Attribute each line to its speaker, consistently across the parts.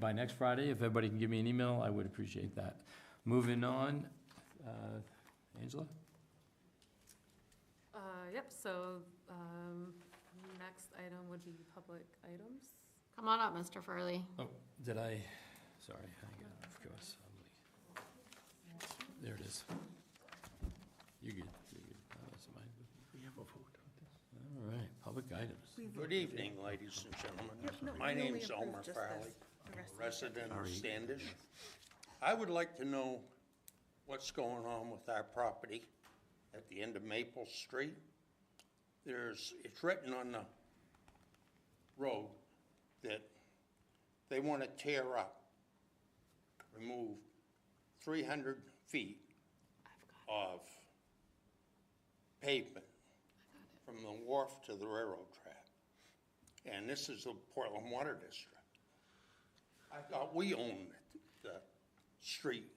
Speaker 1: by next Friday, if everybody can give me an email, I would appreciate that. Moving on, uh, Angela?
Speaker 2: Uh, Yep, so um, next item would be public items.
Speaker 3: Come on up, Mr. Furley.
Speaker 1: Oh, did I, sorry, I got off course. There it is. You're good, you're good. Oh, that's mine.
Speaker 4: We have a vote on this.
Speaker 1: All right, public items.
Speaker 5: Good evening, ladies and gentlemen. My name's Elmer Farley, resident of Standish. I would like to know what's going on with our property at the end of Maple Street. There's, it's written on the road that they want to tear up, remove 300 feet of pavement from the wharf to the railroad track. And this is the Portland Water District. I thought we owned the street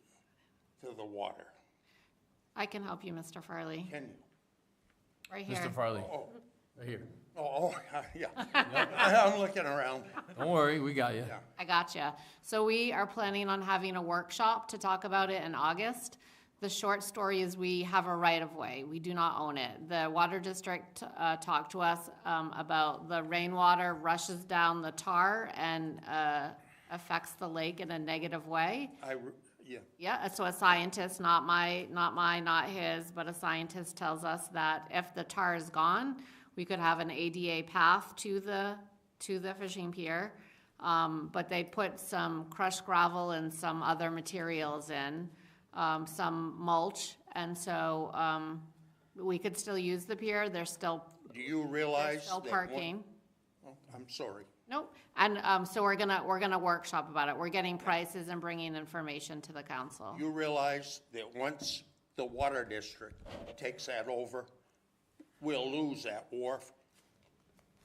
Speaker 5: to the water.
Speaker 3: I can help you, Mr. Farley,
Speaker 5: Can you?
Speaker 3: right here.
Speaker 1: Mr. Farley,
Speaker 5: Oh,
Speaker 1: right here.
Speaker 5: oh, oh, yeah. I'm looking around.
Speaker 1: Don't worry, we got you.
Speaker 5: Yeah.
Speaker 3: I gotcha. So we are planning on having a workshop to talk about it in August. The short story is we have a right-of-way. We do not own it. The Water District uh, talked to us um, about the rainwater rushes down the tar and uh, affects the lake in a negative way.
Speaker 5: I, re- yeah,
Speaker 3: Yeah, so a scientist, not my, not my, not his, but a scientist tells us that if the tar is gone, we could have an ADA path to the, to the fishing pier. Um, but they put some crushed gravel and some other materials in, um, some mulch. And so, um, we could still use the pier, there's still,
Speaker 5: do you
Speaker 3: there's
Speaker 5: realize?
Speaker 3: still
Speaker 5: that one-
Speaker 3: parking.
Speaker 5: Oh, I'm sorry.
Speaker 3: Nope, and, um, so we're gonna, we're gonna workshop about it. We're getting prices and bringing information to the council.
Speaker 5: You realize that once the water district takes that over, we'll lose that wharf.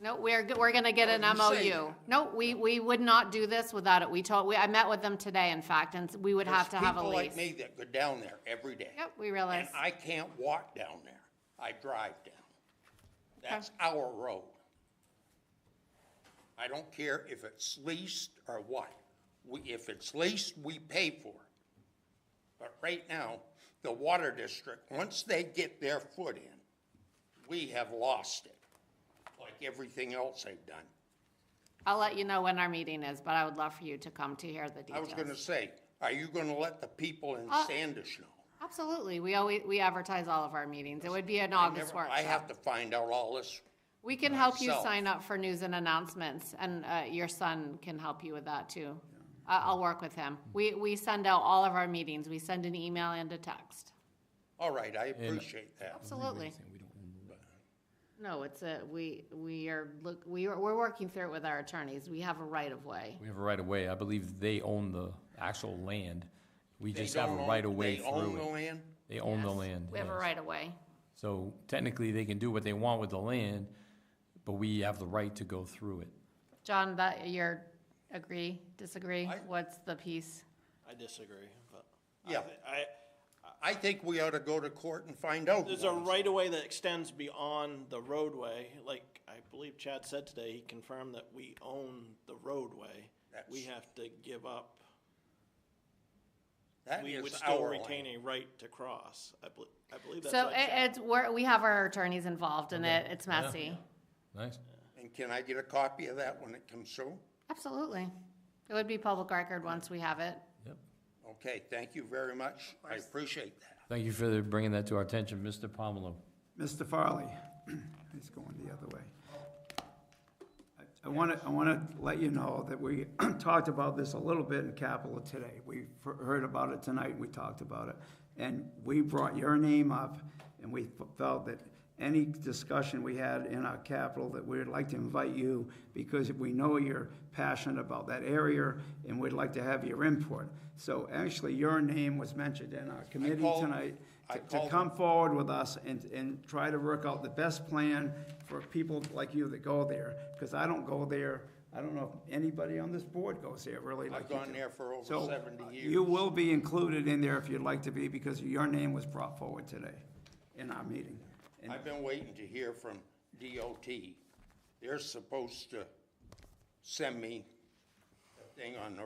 Speaker 3: No, we're, g- we're gonna get
Speaker 5: Oh,
Speaker 3: an MOU. No, we, we would not do this without it. We told, we, I met with them today, in fact, and s- we would have to have a
Speaker 5: People
Speaker 3: lease.
Speaker 5: like me that go down there every day.
Speaker 3: Yep, we realize.
Speaker 5: And I can't walk down there. I drive down. That's our road. I don't care if it's leased or what. We, if it's leased, we pay for it. But right now, the water district, once they get their foot in, we have lost it, like everything else they've done.
Speaker 3: I'll let you know when our meeting is, but I would love for you to come to hear the
Speaker 5: I was gonna
Speaker 3: details.
Speaker 5: say, are you gonna let the people in
Speaker 3: Uh,
Speaker 5: Standish know?
Speaker 3: Absolutely. We always, we advertise all of our meetings. It would be an August
Speaker 5: Never- I have
Speaker 3: workshop.
Speaker 5: to find out all this.
Speaker 3: We can help you
Speaker 5: myself.
Speaker 3: sign up for news and announcements, and, uh, your son can help you with that too. I, I'll work with him. We, we send out all of our meetings. We send an email and a text.
Speaker 5: All right, I appreciate that.
Speaker 3: Absolutely.
Speaker 1: We don't own the-
Speaker 3: No, it's a, we, we are, look, we are, we're working through it with our attorneys. We have a right of way.
Speaker 1: We have a right of way. I believe they own the actual land. We
Speaker 5: They
Speaker 1: just have a
Speaker 5: don't own-
Speaker 1: right of way
Speaker 5: They own the
Speaker 1: through it.
Speaker 5: land?
Speaker 1: They own the land.
Speaker 3: We have a
Speaker 1: yes.
Speaker 3: right of way.
Speaker 1: So technically, they can do what they want with the land, but we have the right to go through it.
Speaker 3: John, that, you're, agree, disagree?
Speaker 5: I-
Speaker 3: What's the piece?
Speaker 6: I disagree, but. I
Speaker 5: Yeah.
Speaker 6: thi- I,
Speaker 5: I think we ought to go to court and find out.
Speaker 6: there's a right of way that extends beyond the roadway, like I believe Chad said today, he confirmed that we own the roadway. We
Speaker 5: That's-
Speaker 6: have to give up,
Speaker 5: That
Speaker 6: we
Speaker 5: is
Speaker 6: would still
Speaker 5: our
Speaker 6: retain
Speaker 5: land.
Speaker 6: a right to cross, I believe, I believe that's
Speaker 3: So
Speaker 6: what
Speaker 3: it,
Speaker 6: Chad.
Speaker 3: it's, we're, we have our attorneys involved in it. It's messy.
Speaker 1: Nice?
Speaker 5: And can I get a copy of that when it comes through?
Speaker 3: Absolutely. It would be public record once we have it.
Speaker 1: Yep.
Speaker 5: Okay, thank you very much. I appreciate that.
Speaker 1: Thank you for bringing that to our attention, Mr. Pomelo.
Speaker 4: Mr. Farley, it's going the other way. I- I want to, I want to let you know that we talked about this a little bit in Capitol today. We f- heard about it tonight, and we talked about it. And we brought your name up, and we f- felt that any discussion we had in our Capitol, that we would like to invite you, because we know you're passionate about that area, and we'd like to have your input. So actually, your name was mentioned in our committee
Speaker 5: called-
Speaker 4: tonight
Speaker 5: I
Speaker 4: to- to
Speaker 5: called-
Speaker 4: come forward with us and, and try to work out the best plan for people like you that go there, because I don't go there, I don't know if anybody on this board goes there really like
Speaker 5: I've
Speaker 4: you do.
Speaker 5: gone there for over
Speaker 4: So,
Speaker 5: 70
Speaker 4: uh,
Speaker 5: years.
Speaker 4: You will be included in there if you'd like to be, because your name was brought forward today in our meeting. And
Speaker 5: I've been waiting to hear from DOT. They're supposed to send me a thing on the